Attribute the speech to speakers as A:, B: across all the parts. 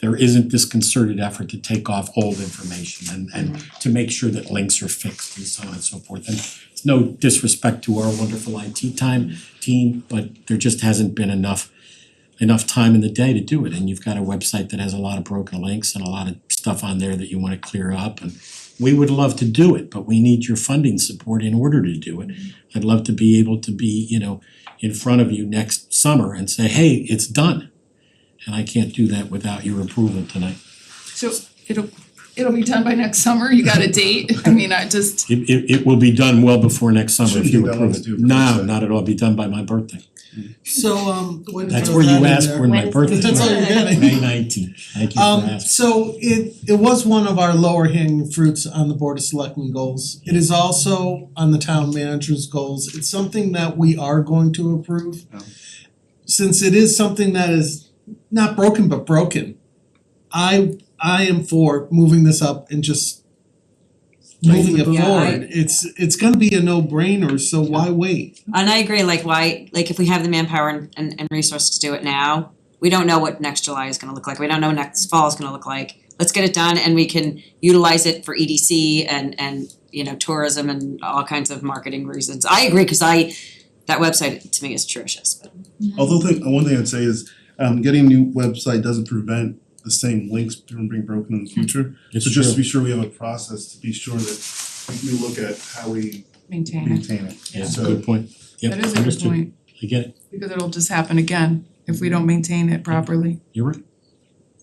A: there isn't this concerted effort to take off old information and and to make sure that links are fixed and so on and so forth. And it's no disrespect to our wonderful IT time team, but there just hasn't been enough enough time in the day to do it, and you've got a website that has a lot of broken links and a lot of stuff on there that you wanna clear up and we would love to do it, but we need your funding support in order to do it. I'd love to be able to be, you know, in front of you next summer and say, hey, it's done. And I can't do that without your approval tonight.
B: So it'll it'll be done by next summer, you got a date, I mean, I just,
A: It it it will be done well before next summer if
C: Shouldn't
A: you
C: be that
A: approve
C: long
A: it.
C: to approve
A: No,
C: that.
A: not at all, be done by my birthday.
D: So um when
A: That's where you ask for my birthday.
D: That's all you're
A: May
D: getting.
A: nineteenth, thank you for
D: Um
A: asking.
D: so it it was one of our lower hanging fruits on the Board of Selectmen goals. It is also on the town manager's goals. It's something that we are going to approve.
C: Oh.
D: Since it is something that is not broken but broken, I I am for moving this up and just moving it
E: Yeah, I-
D: forward. It's it's gonna be a no brainer, so why wait?
E: And I agree, like why, like if we have the manpower and and and resources to do it now, we don't know what next July is gonna look like, we don't know what next fall is gonna look like. Let's get it done and we can utilize it for EDC and and you know, tourism and all kinds of marketing reasons. I agree, cause I, that website to me is atrocious, but
C: Although the, one thing I'd say is, um, getting a new website doesn't prevent the same links from being broken in the future.
A: Hmm. It's
C: So just to
A: true.
C: be sure we have a process to be sure that we look at how we
B: maintain it,
C: maintain it.
A: Yeah,
C: So-
A: good point. Yep,
B: that is a good
A: understood.
B: point,
A: I get it,
B: because it'll just happen again if we don't maintain it properly.
A: you're right.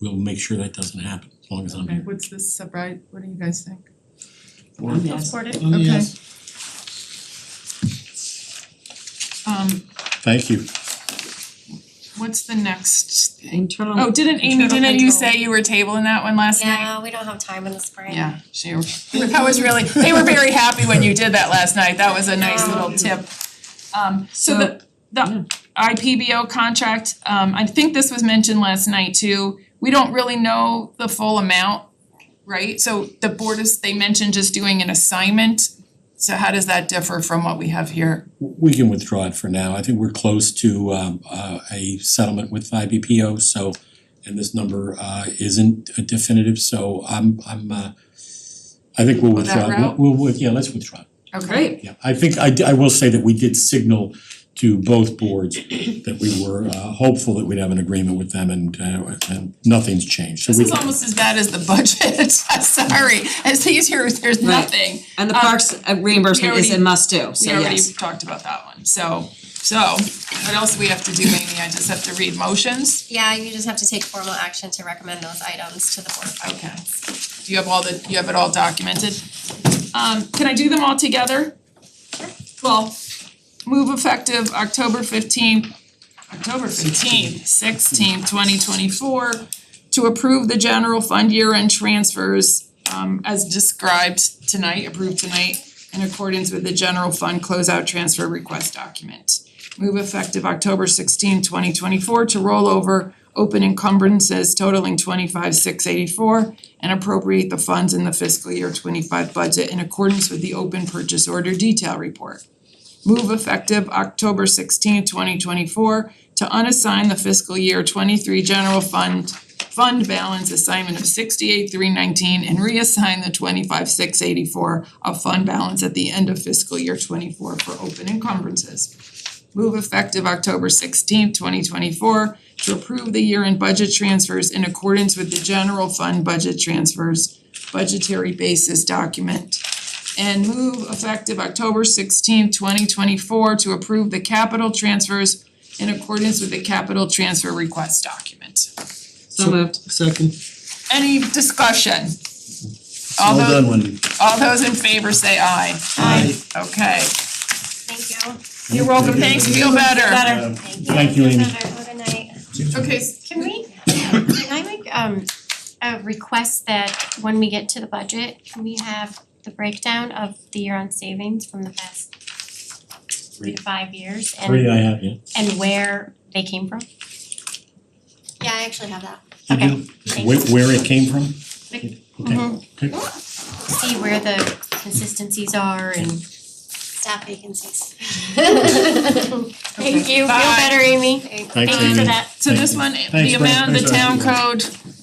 A: We'll make sure that doesn't happen as long as I'm
B: Okay,
A: here.
B: what's this, right, what do you guys think?
E: I'm yes.
D: Um,
B: Okay.
D: yes.
B: Um,
A: Thank you.
B: what's the next?
E: Internal.
B: Oh, didn't Amy,
F: Internal
B: didn't you
F: control.
B: say you were tabling that one last night?
F: Yeah, we don't have time in the spring.
B: Yeah, she, that was really, they were very happy when you did that last night, that was a nice little tip. Um so the the IPBO contract, um I think this was mentioned last night too, we don't really know the full amount, right? So the board is, they mentioned just doing an assignment, so how does that differ from what we have here?
A: We can withdraw it for now. I think we're close to um uh a settlement with IBPO, so and this number uh isn't definitive, so I'm I'm uh I think we'll
B: Go that
A: withdraw. We'll-
B: route?
A: We'll with- yeah, let's withdraw.
B: Okay.
A: Yeah, I think I di- I will say that we did signal to both boards that we were uh hopeful that we'd have an agreement with them and uh and nothing's changed, so
B: This
A: we
B: is almost as bad as the budget, sorry, as these here, there's
E: Right.
B: nothing.
E: And the
B: Um,
E: parks uh, reimbursement is a
B: already-
E: must do, so
B: We already
E: yes.
B: talked about that one, so, so, what else do we have to do, Amy? I just have to read motions?
F: Yeah, you just have to take formal action to recommend those items to the board of finance.
B: Do you have all the, you have it all documented? Um, can I do them all together? Well, move effective October fifteenth, October fifteenth, sixteenth, twenty twenty-four, to approve the general fund year-end transfers, um, as described tonight, approved tonight, in accordance with the general fund closeout transfer request document. Move effective October 16, 2024, to roll over open encumbrances totaling twenty-five six eighty-four and appropriate the funds in the fiscal year twenty-five budget in accordance with the open purchase order detail report. Move effective October 16, 2024, to unassign the fiscal year twenty-three general fund fund balance assignment of sixty-eight three nineteen and reassign the twenty-five six eighty-four of fund balance at the end of fiscal year twenty-four for open encumbrances. Move effective October sixteenth, twenty twenty-four to approve the year-end budget transfers in accordance with the general fund budget transfers budgetary basis document. And move effective October sixteenth, twenty twenty-four to approve the capital transfers in accordance with the capital transfer request document.
E: So moved.
D: Second.
B: Any discussion? All
C: Well
B: those,
C: done, Wendy.
B: all those in favor say aye.
D: Aye.
B: Okay,
F: Thank you.
B: you're welcome, thanks, feel better.
C: Uh,
F: Thank you.
A: Thank you, Amy.
F: Have a good night.
B: Okay, s-
F: Can we, can I make um a request that when we get to the budget, can we have the breakdown of the year-end savings from the past three to five years and
A: three I have, yeah.
F: and where they came from? Yeah, I actually have that.
A: You
F: Okay.
A: do? Where where it came from? Okay,
B: Mm-hmm.
A: okay.
F: see where the consistencies are and staff vacancies. Thank you, feel
B: Bye.
F: better, Amy.
A: Thanks,
F: Thank you
A: Amy.
F: for that.
B: so
A: Thank
B: this
A: you.
B: one,
A: Thanks,
B: the
A: Brent.
B: amount, the
A: Thanks, Brent.
B: town code,